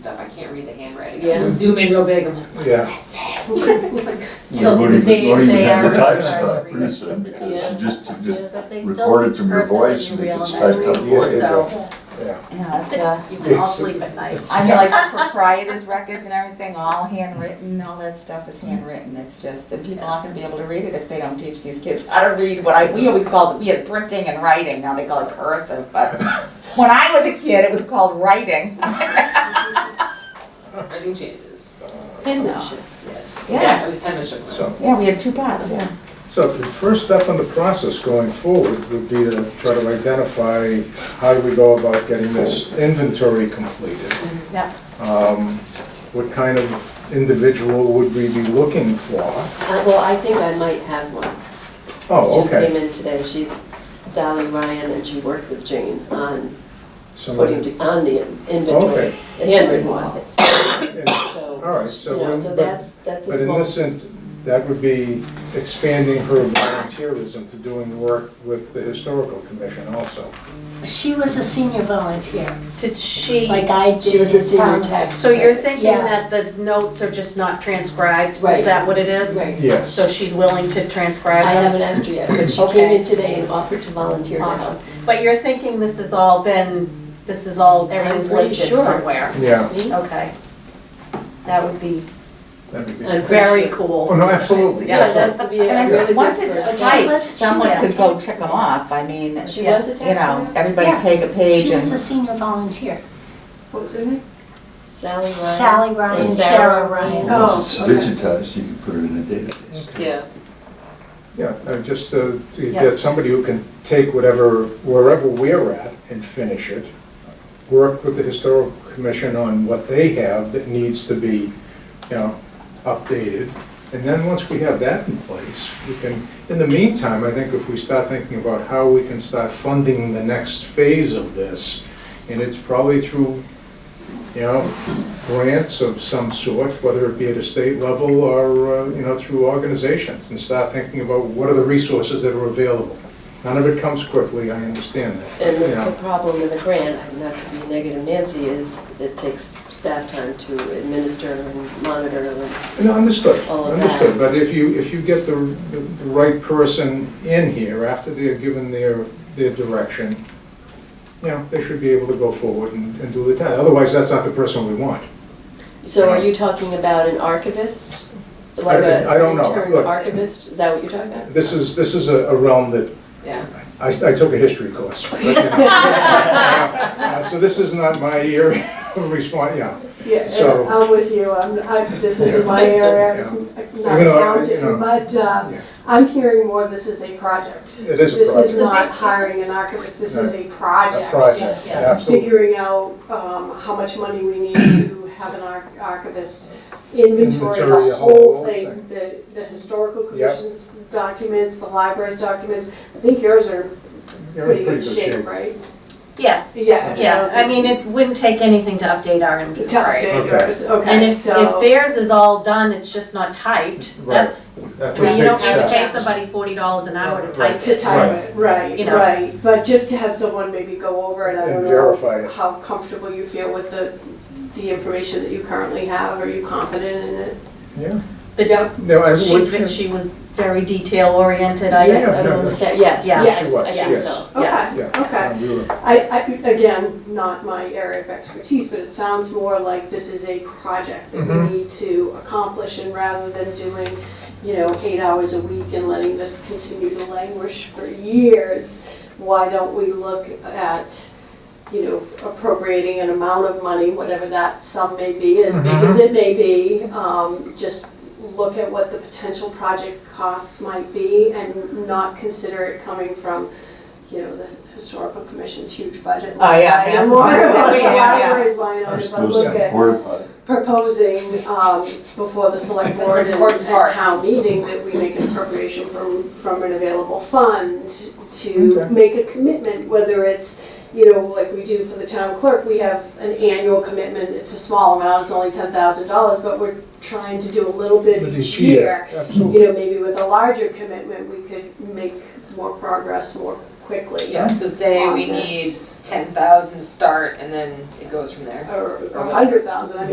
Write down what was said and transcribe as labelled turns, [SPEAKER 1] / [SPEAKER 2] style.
[SPEAKER 1] stuff, I can't read the handwriting.
[SPEAKER 2] Yeah, zoom in real big, I'm like, what does that say?
[SPEAKER 3] We're
[SPEAKER 2] Till
[SPEAKER 3] going
[SPEAKER 2] the
[SPEAKER 3] to
[SPEAKER 2] page
[SPEAKER 3] going
[SPEAKER 2] they
[SPEAKER 3] to have
[SPEAKER 2] are.
[SPEAKER 3] to type
[SPEAKER 2] required to
[SPEAKER 3] stuff
[SPEAKER 2] read.
[SPEAKER 3] pretty soon because
[SPEAKER 2] Yeah.
[SPEAKER 3] you just, you just
[SPEAKER 4] But they still
[SPEAKER 3] record it
[SPEAKER 4] teach
[SPEAKER 3] from your
[SPEAKER 4] person
[SPEAKER 3] voice
[SPEAKER 4] in
[SPEAKER 3] and it
[SPEAKER 4] real
[SPEAKER 3] gets typed up.
[SPEAKER 4] elementary,
[SPEAKER 3] voice.
[SPEAKER 4] so
[SPEAKER 5] Yeah, it's, uh,
[SPEAKER 4] you can all
[SPEAKER 6] Yes.
[SPEAKER 4] sleep at night.
[SPEAKER 5] I mean, like proprietors records and everything, all handwritten, all that stuff is handwritten, it's just, and people aren't gonna be able to read it if they don't teach these kids how to read what I, we always called, we had printing and writing, now they call it cursive, but when I was a kid, it was called writing.
[SPEAKER 1] Writing changes.
[SPEAKER 5] Penmanship.
[SPEAKER 1] Yes.
[SPEAKER 5] Yeah.
[SPEAKER 1] It was penmanship.
[SPEAKER 6] So,
[SPEAKER 5] Yeah, we had two pots, yeah.
[SPEAKER 6] so the first step in the process going forward would be to try to identify how do we go about getting this inventory completed?
[SPEAKER 4] Yep.
[SPEAKER 6] Um, What kind of individual would we be looking for?
[SPEAKER 7] Uh, Well, I think I might have one.
[SPEAKER 6] Oh,
[SPEAKER 7] She came
[SPEAKER 6] okay.
[SPEAKER 7] in today, she's Sally Ryan, and she worked with Jane on putting,
[SPEAKER 6] Somebody-
[SPEAKER 7] to- on the
[SPEAKER 6] Okay.
[SPEAKER 7] inventory, the handwritten one.
[SPEAKER 6] All
[SPEAKER 7] So,
[SPEAKER 6] right,
[SPEAKER 7] you
[SPEAKER 6] so,
[SPEAKER 7] know,
[SPEAKER 6] when-
[SPEAKER 7] so
[SPEAKER 6] but,
[SPEAKER 7] that's, that's
[SPEAKER 6] but
[SPEAKER 7] a
[SPEAKER 6] in
[SPEAKER 7] small.
[SPEAKER 6] this sense, that would be expanding her volunteerism to doing work with the historical commission also.
[SPEAKER 8] She was a senior volunteer,
[SPEAKER 4] Did she?
[SPEAKER 8] like I did.
[SPEAKER 7] She was a senior
[SPEAKER 8] in
[SPEAKER 7] tech.
[SPEAKER 4] So you're thinking
[SPEAKER 8] Yeah.
[SPEAKER 4] that the notes are just not transcribed?
[SPEAKER 7] Right.
[SPEAKER 4] Is that what it is?
[SPEAKER 7] Right.
[SPEAKER 6] Yes,
[SPEAKER 4] So she's willing to transcribe
[SPEAKER 7] I
[SPEAKER 4] them?
[SPEAKER 7] haven't asked her yet, but she
[SPEAKER 4] Okay.
[SPEAKER 7] came in today and offered to volunteer to
[SPEAKER 4] Awesome.
[SPEAKER 7] help.
[SPEAKER 4] But you're thinking this has all been, this is all, everything's
[SPEAKER 7] I'm pretty
[SPEAKER 4] listed
[SPEAKER 7] sure.
[SPEAKER 4] somewhere?
[SPEAKER 6] yeah,
[SPEAKER 4] Okay. That would be
[SPEAKER 6] that would be.
[SPEAKER 7] I'm
[SPEAKER 4] very
[SPEAKER 7] sure.
[SPEAKER 4] cool.
[SPEAKER 6] Oh, no, absolutely,
[SPEAKER 4] Yeah.
[SPEAKER 6] yes,
[SPEAKER 7] That would be
[SPEAKER 5] And I
[SPEAKER 7] a really
[SPEAKER 5] said,
[SPEAKER 7] good
[SPEAKER 5] once it's
[SPEAKER 7] first
[SPEAKER 8] time.
[SPEAKER 5] typed,
[SPEAKER 8] Was- she
[SPEAKER 5] someone
[SPEAKER 8] was a
[SPEAKER 5] could go
[SPEAKER 8] text.
[SPEAKER 5] tick them off, I mean,
[SPEAKER 7] step.
[SPEAKER 5] you
[SPEAKER 7] She was a
[SPEAKER 5] know,
[SPEAKER 7] taxpayer?
[SPEAKER 5] everybody
[SPEAKER 8] Yeah.
[SPEAKER 5] take a page
[SPEAKER 8] She was a
[SPEAKER 5] and,
[SPEAKER 8] senior volunteer.
[SPEAKER 7] What was her name? Sally Ryan.
[SPEAKER 8] Sally Ryan,
[SPEAKER 7] Sarah
[SPEAKER 8] Sarah
[SPEAKER 7] Ryan.
[SPEAKER 8] Ryan.
[SPEAKER 7] Oh,
[SPEAKER 3] It's
[SPEAKER 7] okay.
[SPEAKER 3] digitized, you can put it in a database.
[SPEAKER 7] Yeah.
[SPEAKER 6] Yeah, uh, just uh, to
[SPEAKER 4] Yeah.
[SPEAKER 6] get somebody who can take whatever, wherever we're at and finish it, work with the historical commission on what they have that needs to be, you know, updated. And then once we have that in place, we can, in the meantime, I think if we start thinking about how we can start funding the next phase of this, and it's probably through, you know, grants of some sort, whether it be at a state level or, uh, you know, through organizations, and start thinking about what are the resources that are available. None of it comes quickly, I understand that.
[SPEAKER 7] And the-
[SPEAKER 6] you know.
[SPEAKER 7] the problem with a grant, I'm not to be negative Nancy, is it takes staff time to administer and monitor and
[SPEAKER 6] No, understood,
[SPEAKER 7] All of that.
[SPEAKER 6] understood, but if you, if you get the, the the right person in here after they're given their, their direction, you know, they should be able to go forward and, and do the task, otherwise that's not the person we want.
[SPEAKER 7] So are you talking about an archivist?
[SPEAKER 6] I-
[SPEAKER 7] Like a
[SPEAKER 6] I don't know.
[SPEAKER 7] intern
[SPEAKER 6] Look.
[SPEAKER 7] archivist, is that what you're talking about?
[SPEAKER 6] This is, this is a a realm that,
[SPEAKER 1] Yeah.
[SPEAKER 6] I, I took a history course. but, you know. Uh, So this is not my area of response, yeah.
[SPEAKER 9] Yeah,
[SPEAKER 6] So-
[SPEAKER 9] and I'm with you, I'm, I, this isn't my area, it's not
[SPEAKER 6] Even though I- you know,
[SPEAKER 9] accounting, but, um,
[SPEAKER 6] yeah.
[SPEAKER 9] I'm hearing more this is a project.
[SPEAKER 6] It is a
[SPEAKER 9] This is
[SPEAKER 6] project.
[SPEAKER 9] not hiring an archivist, this is a
[SPEAKER 6] A
[SPEAKER 9] project.
[SPEAKER 6] project, absolutely.
[SPEAKER 9] Figuring out, um, how much money we need to have an arch- archivist inventory,
[SPEAKER 6] Inventory,
[SPEAKER 9] the whole thing, the, the historical
[SPEAKER 6] Yep.
[SPEAKER 9] commission's documents, the library's documents. I think yours are
[SPEAKER 6] You're in
[SPEAKER 9] pretty good shape, right?
[SPEAKER 4] Yeah,
[SPEAKER 9] Yeah.
[SPEAKER 4] yeah. I mean, it wouldn't take anything to update our
[SPEAKER 9] To
[SPEAKER 4] inventory.
[SPEAKER 9] update
[SPEAKER 6] Okay.
[SPEAKER 9] yours, okay, so.
[SPEAKER 4] And if, if theirs is all done, it's just not typed,
[SPEAKER 6] Right.
[SPEAKER 4] that's, I
[SPEAKER 6] That's a
[SPEAKER 4] mean, you
[SPEAKER 6] big
[SPEAKER 4] don't have to
[SPEAKER 6] check.
[SPEAKER 4] pay somebody forty dollars an hour to
[SPEAKER 6] Right.
[SPEAKER 4] type
[SPEAKER 9] to
[SPEAKER 4] it.
[SPEAKER 9] time
[SPEAKER 6] Right.
[SPEAKER 9] it, right,
[SPEAKER 4] You know.
[SPEAKER 9] right. But just to have someone maybe go over it, I
[SPEAKER 6] And
[SPEAKER 9] don't
[SPEAKER 6] verify it.
[SPEAKER 9] know how comfortable you feel with the, the information that you currently have, are you confident in it?
[SPEAKER 6] Yeah.
[SPEAKER 4] The-
[SPEAKER 9] Yep.
[SPEAKER 6] No, I-
[SPEAKER 4] She's, ve- she was very detail oriented, I
[SPEAKER 6] Yeah,
[SPEAKER 4] guess.
[SPEAKER 6] no, no.
[SPEAKER 7] Yes, yes,
[SPEAKER 4] Yeah.
[SPEAKER 6] She was,
[SPEAKER 7] I think
[SPEAKER 6] yes.
[SPEAKER 7] so, yes.
[SPEAKER 9] Okay, okay.
[SPEAKER 6] Yeah, we were-
[SPEAKER 9] I, I, again, not my area of expertise, but it sounds more like this is a project that
[SPEAKER 6] Mhm.
[SPEAKER 9] we need to accomplish and rather than doing, you know, eight hours a week and letting this continue to languish for years, why don't we look at, you know, appropriating an amount of money, whatever that sum may be, as big as it may be, um, just look at what the potential project costs might be and not consider it coming from you know, the historical commission's huge budget.
[SPEAKER 5] Oh, yeah,
[SPEAKER 9] line item
[SPEAKER 5] massive
[SPEAKER 9] Or
[SPEAKER 5] budget,
[SPEAKER 9] the
[SPEAKER 5] yeah, yeah.
[SPEAKER 9] library's line
[SPEAKER 3] You're
[SPEAKER 9] item, if I
[SPEAKER 3] supposed
[SPEAKER 9] look
[SPEAKER 3] to
[SPEAKER 9] at
[SPEAKER 3] report about it.
[SPEAKER 9] proposing, um, before the select
[SPEAKER 7] That's
[SPEAKER 9] board
[SPEAKER 7] the
[SPEAKER 9] and
[SPEAKER 7] important
[SPEAKER 9] at
[SPEAKER 7] part.
[SPEAKER 9] town meeting, that we make an appropriation from, from an available fund to
[SPEAKER 6] Okay.
[SPEAKER 9] make a commitment, whether it's, you know, like we do for the town clerk, we have an annual commitment, it's a small amount, it's only ten thousand dollars, but we're trying to do a little bit
[SPEAKER 6] But
[SPEAKER 9] each year
[SPEAKER 6] Absolutely.
[SPEAKER 9] you know, maybe with a larger commitment, we could make more progress more quickly.
[SPEAKER 1] Yeah, so say we
[SPEAKER 9] On
[SPEAKER 1] need
[SPEAKER 9] this.
[SPEAKER 1] ten thousand start and then it goes from there.
[SPEAKER 9] Or a hundred thousand, I mean,